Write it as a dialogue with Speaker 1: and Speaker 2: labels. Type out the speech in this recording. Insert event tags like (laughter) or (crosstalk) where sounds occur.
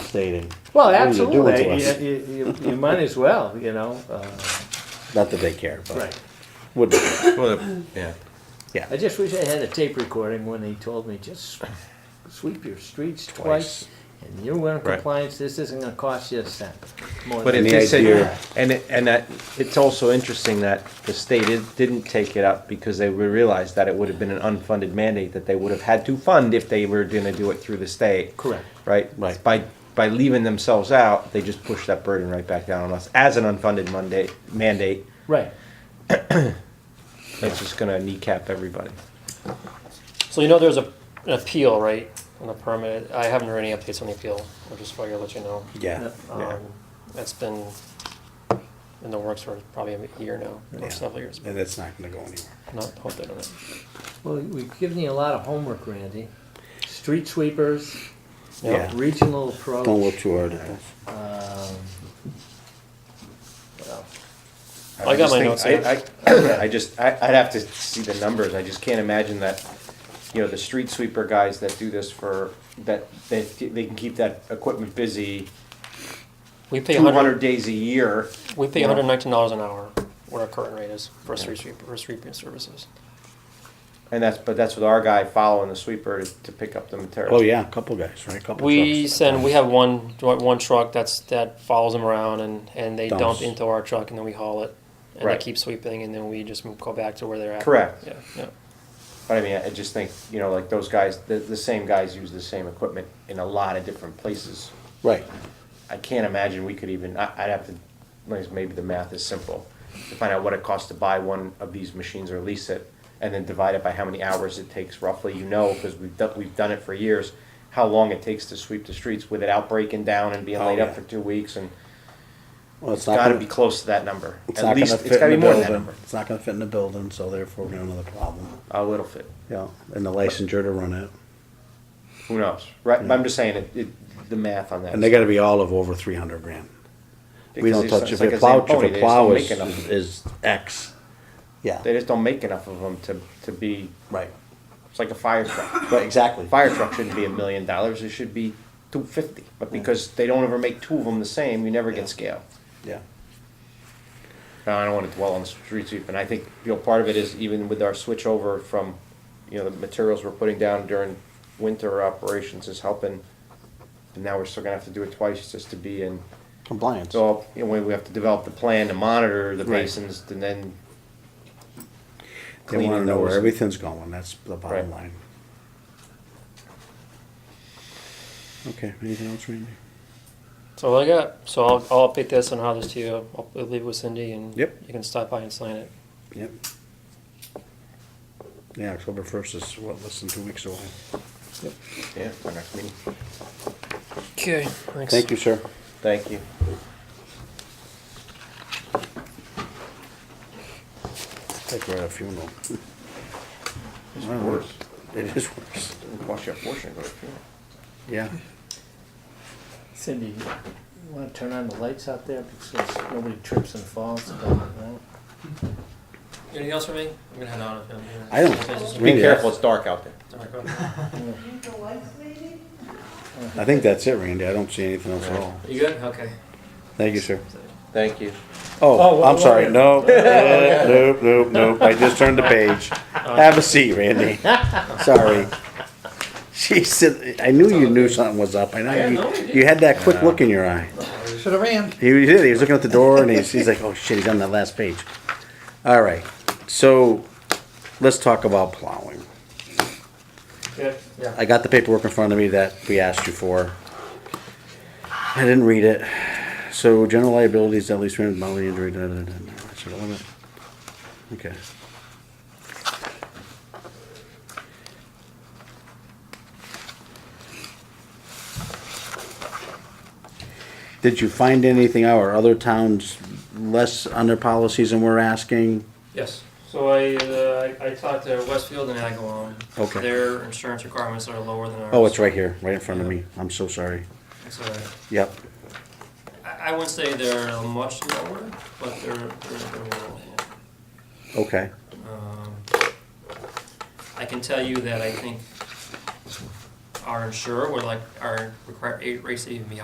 Speaker 1: stating.
Speaker 2: Well,
Speaker 1: what you're
Speaker 2: absolutely,
Speaker 1: doing to us.
Speaker 2: you, you- you- you might as well, you know, uh,
Speaker 1: Not that they care, but
Speaker 2: right.
Speaker 1: would,
Speaker 3: Well, the- yeah.
Speaker 2: I just wish I had a tape recording when they told me, just sweep your streets
Speaker 3: Twice.
Speaker 2: twice, and you're in
Speaker 3: Right.
Speaker 2: compliance, this isn't gonna cost you a cent. more
Speaker 3: But
Speaker 2: than-
Speaker 3: if
Speaker 1: the
Speaker 3: they said,
Speaker 1: idea-
Speaker 3: and, it- and that, it's also interesting that the state did- didn't take it up because they realized that it would have been an unfunded mandate that they would have had to fund if they were gonna do it through the state.
Speaker 2: Correct.
Speaker 3: Right?
Speaker 1: Right.
Speaker 3: By, by leaving themselves out, they just push that burden right back down on us as an unfunded mandate, mandate.
Speaker 2: Right,
Speaker 3: It's just gonna kneecap everybody.
Speaker 4: So you know there's a, an appeal, right, on the permit? I haven't heard any updates on the appeal, I just figured I'd let you know.
Speaker 1: yeah.
Speaker 2: Uh,
Speaker 3: Yeah.
Speaker 4: Um, That's been in the works for probably a year now,
Speaker 1: Yeah.
Speaker 4: or several years, but
Speaker 1: And that's not gonna go anywhere.
Speaker 4: not hopefully on it.
Speaker 2: well, we've given you a lot of homework, Randy, street sweepers,
Speaker 1: Yeah. Don't
Speaker 2: regional
Speaker 1: look
Speaker 2: approach,
Speaker 1: too hard at it.
Speaker 2: um, what else?
Speaker 4: I got my
Speaker 3: just think- I, (coughs) I, I just, I, I'd have to see the numbers, I just can't imagine that, you know, the street sweeper guys that do this for, that, they, they can keep that equipment busy
Speaker 4: We pay
Speaker 3: two hundred
Speaker 4: hundred,
Speaker 3: days a year.
Speaker 4: we pay
Speaker 3: Yeah.
Speaker 4: hundred and nineteen dollars an hour, what our current rate is for street sweep, for street services.
Speaker 3: And that's, but that's with our guy following the sweeper to, to pick up the material.
Speaker 1: Oh, yeah, a couple guys, right? Couple
Speaker 4: We
Speaker 1: trucks.
Speaker 4: send, we have one, one truck that's, that follows them around and, and they dump
Speaker 1: Dumps.
Speaker 4: into our truck and then we haul it. And they
Speaker 3: Right.
Speaker 4: keep sweeping and then we just move- go back to where they're at.
Speaker 3: Correct.
Speaker 4: Yeah, yeah.
Speaker 3: But I mean, I just think, you know, like those guys, the, the same guys use the same equipment in a lot of different places.
Speaker 1: Right.
Speaker 3: I can't imagine we could even, I, I'd have to, like, maybe the math is simple, to find out what it costs to buy one of these machines or lease it, and then divide it by how many hours it takes roughly, you know, because we've done, we've done it for years, how long it takes to sweep the streets with it out breaking down and being
Speaker 1: Oh,
Speaker 3: laid
Speaker 1: yeah.
Speaker 3: up for two weeks, and
Speaker 1: Well, it's not
Speaker 3: gotta
Speaker 1: gonna,
Speaker 3: be close to that number.
Speaker 1: it's
Speaker 3: At
Speaker 1: not
Speaker 3: least,
Speaker 1: gonna
Speaker 3: it's
Speaker 1: fit
Speaker 3: gotta be
Speaker 1: in the
Speaker 3: more than that
Speaker 1: building.
Speaker 3: number.
Speaker 1: It's not gonna fit in the building, so therefore we have another problem.
Speaker 3: A little fit,
Speaker 1: Yeah, and the licensure to run it.
Speaker 3: who knows, right, but I'm just saying, it, it, the math on that.
Speaker 1: And they gotta be all of over three hundred grand. We
Speaker 3: because
Speaker 1: don't
Speaker 3: it's-
Speaker 1: touch,
Speaker 3: it's
Speaker 1: if
Speaker 3: like
Speaker 1: a
Speaker 3: a
Speaker 1: plow,
Speaker 3: Zamboni,
Speaker 1: if a
Speaker 3: they just
Speaker 1: plow
Speaker 3: don't
Speaker 1: is,
Speaker 3: make enough.
Speaker 1: is X.
Speaker 3: They
Speaker 1: Yeah,
Speaker 3: just don't make enough of them to, to be,
Speaker 1: right.
Speaker 3: it's like a fire truck.
Speaker 1: Right, exactly.
Speaker 3: fire truck shouldn't be a million dollars, it should be two fifty, but because they don't ever make two of them the same, you never
Speaker 1: Yeah.
Speaker 3: get scale.
Speaker 1: Yeah.
Speaker 3: Now, I don't wanna dwell on the street sweep, and I think, you know, part of it is even with our switch over from, you know, the materials we're putting down during winter operations is helping. And now we're still gonna have to do it twice just to be in,
Speaker 1: Compliance.
Speaker 3: so, you know, we we have to develop the plan to monitor the
Speaker 1: Right.
Speaker 3: basins and then.
Speaker 1: They wanna
Speaker 3: cleaning
Speaker 1: know where
Speaker 3: those.
Speaker 1: everything's going, that's the
Speaker 3: Right.
Speaker 1: bottom line. Okay, anything else, Randy?
Speaker 4: So all I got, so I'll, I'll update this and how this to you. I'll, I'll leave it with Cindy and
Speaker 1: Yep.
Speaker 4: you can stop by and sign it.
Speaker 1: Yep. Yeah, October first is what, less than two weeks away.
Speaker 3: Yeah, our next meeting.
Speaker 4: Okay, thanks.
Speaker 1: Thank you, sir.
Speaker 3: Thank you.
Speaker 1: It's like we're at a funeral.
Speaker 3: It's worse,
Speaker 1: It is worse.
Speaker 3: it costs you a fortune to go to a funeral.
Speaker 1: Yeah.
Speaker 2: Cindy, you wanna turn on the lights out there, because nobody trips and falls, right?
Speaker 4: Anything else for me? I'm gonna head out.
Speaker 1: I don't.
Speaker 3: Be
Speaker 1: Randy,
Speaker 3: careful, it's dark out there.
Speaker 5: The lights, maybe?
Speaker 1: I think that's it, Randy. I don't see anything else at all.
Speaker 4: You good? Okay.
Speaker 1: Thank you, sir.
Speaker 3: Thank you.
Speaker 1: Oh,
Speaker 2: Oh,
Speaker 1: I'm
Speaker 2: wha-
Speaker 1: sorry.
Speaker 2: wha-
Speaker 1: No, eh, nope, nope, nope. I just turned the page. Have a seat, Randy. Sorry. She said, I knew you knew something was up. I know you, you had that quick look in your eye.
Speaker 6: Should have ran.
Speaker 1: He was, he was looking at the door and he's, he's like, oh shit, he's on that last page. All right. So let's talk about plowing.
Speaker 4: Yeah, yeah.
Speaker 1: I got the paperwork in front of me that we asked you for. I didn't read it. So general liability is at least rendered bodily injury. Da, da, da, da. That's the limit. Okay. Did you find anything out? Are other towns less under policies than we're asking?
Speaker 4: Yes. So I, uh, I I talked to Westfield and Agawam.
Speaker 1: Okay.
Speaker 4: Their insurance requirements are lower than ours.
Speaker 1: Oh, it's right here, right in front of me. I'm so sorry.
Speaker 4: It's all right.
Speaker 1: Yep.
Speaker 4: I, I wouldn't say they're much lower, but they're, they're, they're lower.
Speaker 1: Okay.
Speaker 4: Um, I can tell you that I think our insurer would like our require eight rates to even be